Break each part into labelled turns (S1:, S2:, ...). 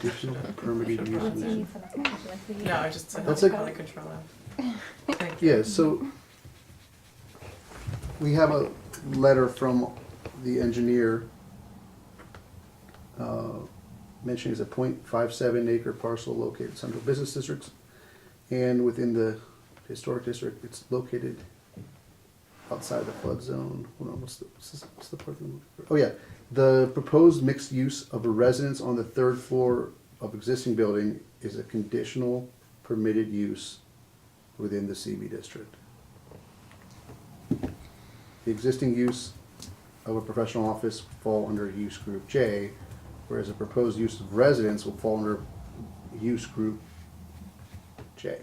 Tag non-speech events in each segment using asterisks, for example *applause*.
S1: Additional permitted
S2: What do you
S1: uses.
S2: need from us? Would you like to be-
S3: No, I just said
S1: That's
S3: how
S1: like-
S3: to control it. Thank you.
S1: Yeah, so we have a letter from the engineer uh, mentioning it's a .57 acre parcel located in central business districts and within the historic district, it's located outside the flood zone. Hold on, what's the, what's this- what's the part? I'm looking for? Oh, yeah. The proposed mixed use of a residence on the third floor of existing building is a conditional permitted use within the CB district. The existing use of a professional office fall under use group J, whereas a proposed use of residence will fall under use group J.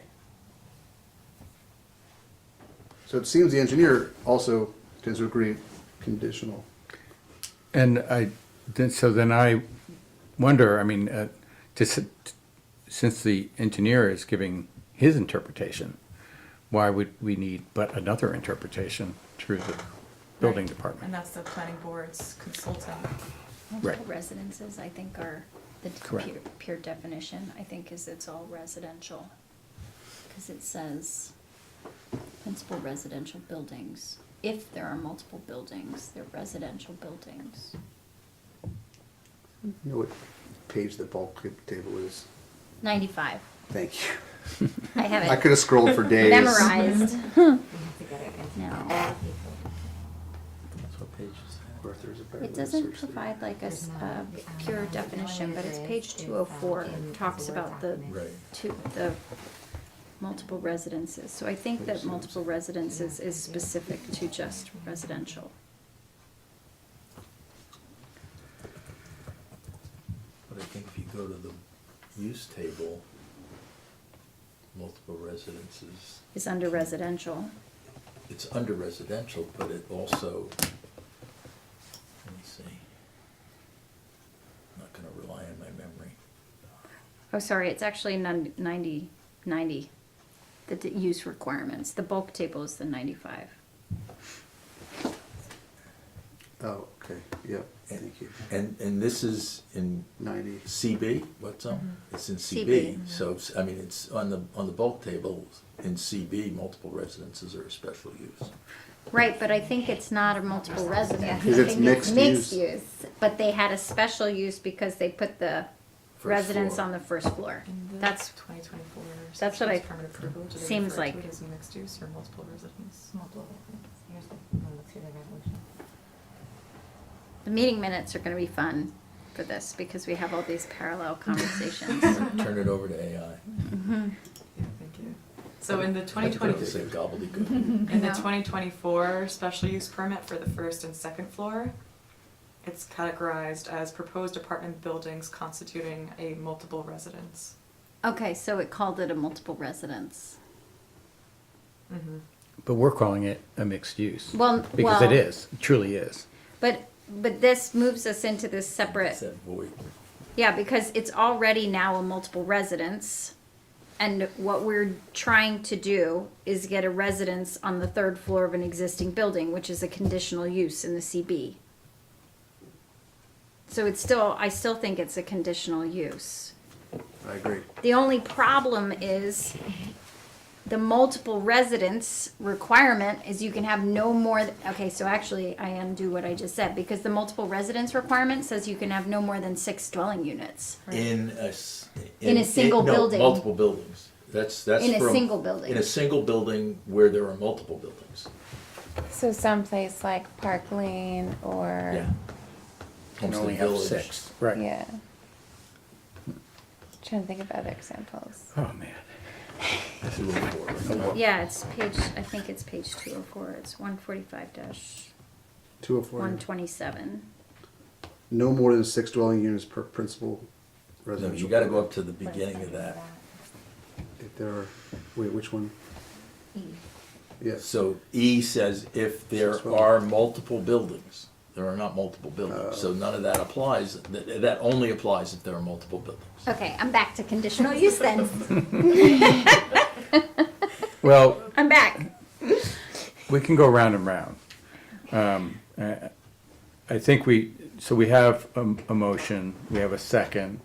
S1: So it seems the engineer also tends to agree conditional.
S4: And I, then, so then I wonder, I mean, uh, to, s- since the engineer is giving his interpretation, why would we need but another interpretation through the
S3: Right.
S4: building
S3: And
S4: department?
S3: that's the planning board's consultant.
S4: Right.
S5: Residences, I think, are the d-
S4: Correct.
S5: pure, pure definition, I think, is it's all residential. Cause it says principal residential buildings. If there are multiple buildings, they're residential buildings.
S1: You know what page the bulk table is?
S5: Ninety-five,
S1: Thank you.
S5: I
S1: I
S5: have
S1: could have scrolled for
S5: it
S1: days.
S5: memorized. No,
S6: That's what page is
S1: Or if there's a better way
S7: It
S1: to
S7: doesn't
S1: search through.
S7: provide like a, s-
S2: It's not-
S5: uh,
S7: a pure definition, but it's page two oh four, talks about the
S4: Right.
S7: two, the multiple residences. So I think that multiple residences is specific to just residential.
S6: But I think if you go to the use table, multiple residences,
S7: Is under residential.
S6: it's under residential, but it also, let me see. I'm not gonna rely on my memory.
S7: Oh, sorry, it's actually nun- ninety, ninety, the d- use requirements. The bulk table is the ninety-five.
S1: Oh, okay, yep, thank you.
S6: And, and this is in
S1: Ninety.
S6: CB, what's up?
S7: Mm-hmm.
S6: It's in
S7: CB.
S6: CB, so, it's- I mean, it's on the, on the bulk table, in CB, multiple residences are a special use.
S7: Right, but I think it's not a multiple residence.
S1: Because it's
S7: I think
S1: mixed use.
S7: mixed use, But they had a special use because they put the
S6: First
S7: residence
S6: floor.
S7: on the first floor. That's,
S3: Twenty twenty-four.
S7: that's what I-
S3: Permit approval. do they
S7: seems
S3: refer to
S7: like-
S3: it as mixed use or multiple residence?
S7: the meeting minutes are gonna be fun for this because we have all these parallel
S1: *laughs*
S7: conversations. Mm-hmm.
S6: Turn it over to AI.
S3: Yeah, thank you. So in the twenty
S6: I
S3: twenty,
S6: just say gobbledygook.
S3: in the
S7: No.
S3: twenty twenty-four special use permit for the first and second floor, it's categorized as proposed apartment buildings constituting a multiple residence.
S7: Okay, so it called it a multiple residence.
S3: Mm-hmm.
S4: But we're calling it a mixed use.
S7: Well,
S4: Because it
S7: well-
S4: is, it truly is.
S7: But, but this moves us into this separate,
S6: Said void.
S7: yeah, because it's already now a multiple residence. And what we're trying to do is get a residence on the third floor of an existing building, which is a conditional use in the CB. So it's still, I still think it's a conditional use.
S1: I agree.
S7: The only problem is the multiple residence requirement is you can have no more, th- okay, so actually I undo what I just said, because the multiple residence requirement says you can have no more than six dwelling units.
S6: In a. s-
S7: In a single
S6: no,
S7: building.
S6: Multiple buildings. That's, that's.
S7: In a
S6: for
S7: single building.
S6: In a single building where there are multiple buildings.
S2: So someplace like Park Lane or,
S6: Yeah.
S4: Can only
S6: Homestead
S4: have
S6: Village.
S4: six. Right.
S2: yeah. Trying to think of other examples.
S4: Oh, man.
S6: Two or four.
S7: Yeah, it's page, I think it's page two oh four, it's one forty-five dash
S1: Two oh four.
S7: one twenty-seven.
S1: No more than six dwelling units per principal
S6: No,
S1: residential.
S6: you gotta go up to the beginning of that.
S1: If there are, wait, which one? Yes,
S6: So E says if there
S1: Six buildings.
S6: are multiple buildings, there are not multiple
S4: Uh.
S6: buildings, so none of that applies, that, that only applies if there are multiple buildings.
S7: Okay, I'm back to conditional use then,
S4: Well,
S7: *laughs* I'm back.
S4: we can go round and round. Um, I I think we, so we have a, a motion, we have a second.